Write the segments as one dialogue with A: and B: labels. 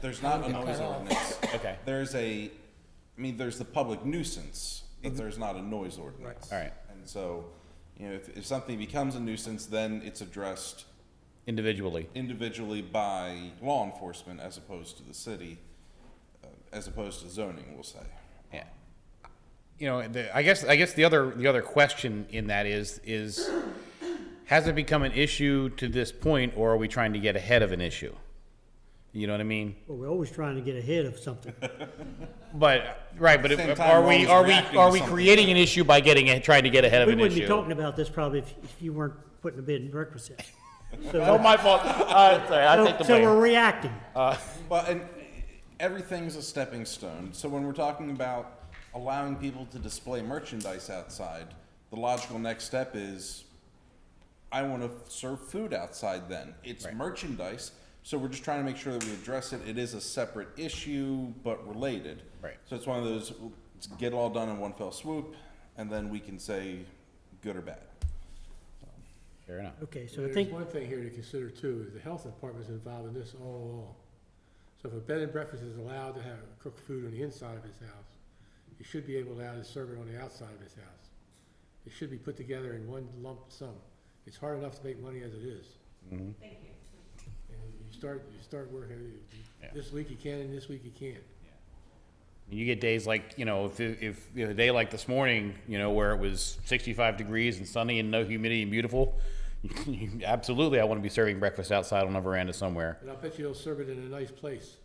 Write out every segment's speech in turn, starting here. A: there's not a noise ordinance.
B: Okay.
A: There's a, I mean, there's the public nuisance, but there's not a noise ordinance.
B: All right.
A: And so, you know, if, if something becomes a nuisance, then it's addressed
B: individually.
A: individually by law enforcement as opposed to the city, uh, as opposed to zoning, we'll say.
B: Yeah. You know, the, I guess, I guess the other, the other question in that is, is has it become an issue to this point or are we trying to get ahead of an issue? You know what I mean?
C: Well, we're always trying to get ahead of something.
B: But, right, but
A: Same
B: it-
A: time,
B: are
A: we're always
B: we, are we,
A: reacting
B: are
A: to
B: we
A: something.
B: creating an issue by getting, a- trying to get ahead of
C: We
B: an
C: wouldn't be
B: issue?
C: talking about this probably if, if you weren't putting a bid in breakfast in.
B: Oh, my fault. Uh, sorry, I take the
C: So so we're
B: blame. Uh,
C: reacting.
A: Well, and everything's a stepping stone. So when we're talking about allowing people to display merchandise outside, the logical next step is I want to serve food outside then. It's merchandise. So we're just trying to make sure that we address it. It is a separate issue, but related.
B: Right.
A: So it's one of those let's get it all done in one fell swoop, and then we can say good or bad.
B: Fair enough.
C: Okay, so I
D: There's
C: think,
D: one thing here to consider too, is the health department's involved in this all along. So if a bed and breakfast is allowed to have cooked food on the inside of his house, he should be able to allow to serve it on the outside of his house. It should be put together in one lump sum. It's hard enough to make money as it is. Thank you. And you start, you start working, you- you-
B: Yeah.
D: this week you can and this week you can't.
B: You get days like, you know, if, if, you know, a day like this morning, you know, where it was sixty-five degrees and sunny and no humidity and beautiful, absolutely, I want to be serving breakfast outside on a veranda somewhere.
D: And I bet you they'll serve it in a nice place.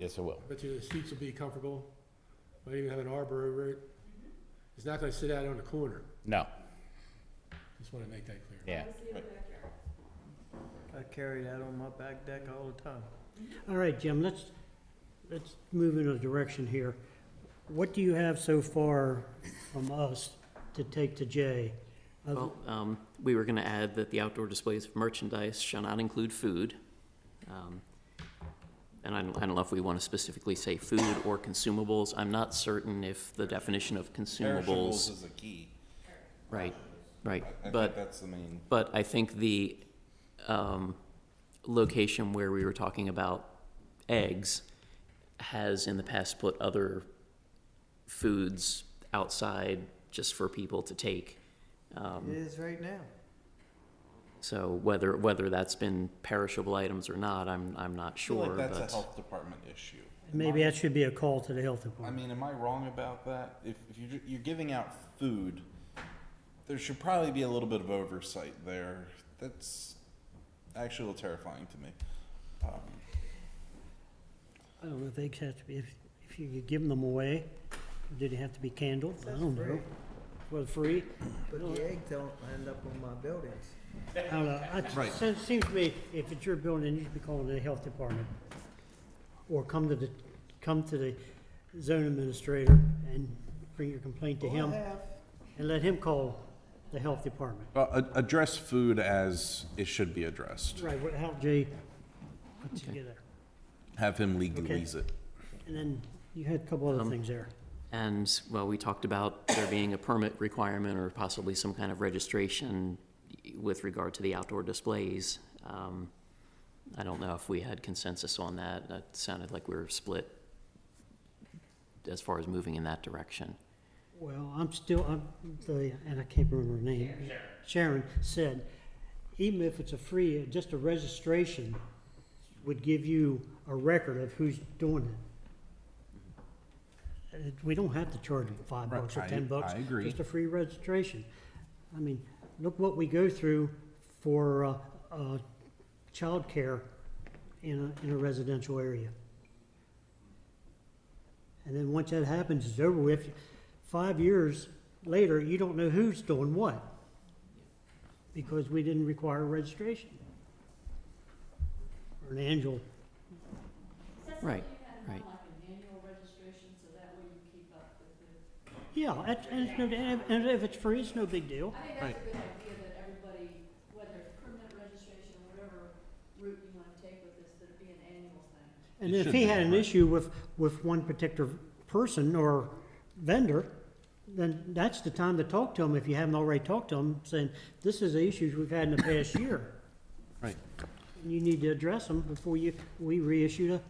B: Yes, I will.
D: Bet you the seats will be comfortable, might even have an arbor over it. It's not gonna sit out on the corner,
B: No,
D: just wanna make that clear.
B: yeah.
E: I carry that on my back deck all the time.
C: all right, Jim, let's, let's move in a direction here. What do you have so far from us to take to Jay? Uh, Other-
F: Well, um, we were gonna add that the outdoor displays of merchandise shall not include food. Um, And I don't, I don't know if we wanna specifically say food or consumables. I'm not certain if the definition of
A: Perishables
F: consumables.
A: is a key.
F: Right, right,
A: I think
F: but,
A: that's the main.
F: but I think the, um, location where we were talking about eggs has in the past put other foods outside just for people to take.
E: It is right now.
F: So whether, whether that's been perishable items or not, I'm, I'm not
A: I feel
F: sure,
A: like that's a
F: but
A: health department issue.
C: Maybe that should be a call to the health
A: I
C: department.
A: mean, am I wrong about that? If, if you're, you're giving out food, there should probably be a little bit of oversight there. That's actually a little terrifying to me.
C: I don't know if eggs have to be, if, if you could give them away, did it have to be candled? I
E: That's
C: don't know.
E: free.
C: Was free?
E: But the egg don't end up on my buildings.
C: I don't know. It
A: Right.
C: seems- seems to me, if it's your building, you should be calling the health department. Or come to the, come to the zone administrator and bring your complaint to him
E: I have,
C: and let him call the health department.
A: Well, a- address food as it should be addressed.
C: Right, what, how, Jay, put together.
A: Have him legalize it.
C: And then you had a couple other things there.
F: and, well, we talked about there being a permit requirement or possibly some kind of registration with regard to the outdoor displays. Um, I don't know if we had consensus on that. That sounded like we were split as far as moving in that direction.
C: Well, I'm still, I'm, the, and I can't remember her name. Sharon said, even if it's a free, just a registration would give you a record of who's doing it. Uh, We don't have to charge them five
A: Right,
C: bucks or
A: I-
C: ten bucks.
A: I agree.
C: Just a free registration. I mean, look what we go through for, uh, uh, childcare in a, in a residential area. And then once that happens, it's over with. Five years later, you don't know who's doing what because we didn't require registration. Or an annual,
F: Right, right.
C: yeah, that's- and it's no, and if it's free, it's no big deal.
G: I think that's a good idea that everybody, whether it's permanent registration, whatever route you wanna take with this, that it be an annual thing.
C: And
A: It
C: if
A: should
C: he
A: be,
C: had an
A: right.
C: issue with, with one particular person or vendor, then that's the time to talk to him, if you haven't already talked to him, saying, this is the issues we've had in the past year.
A: Right.
C: You need to address them before you, we reissue the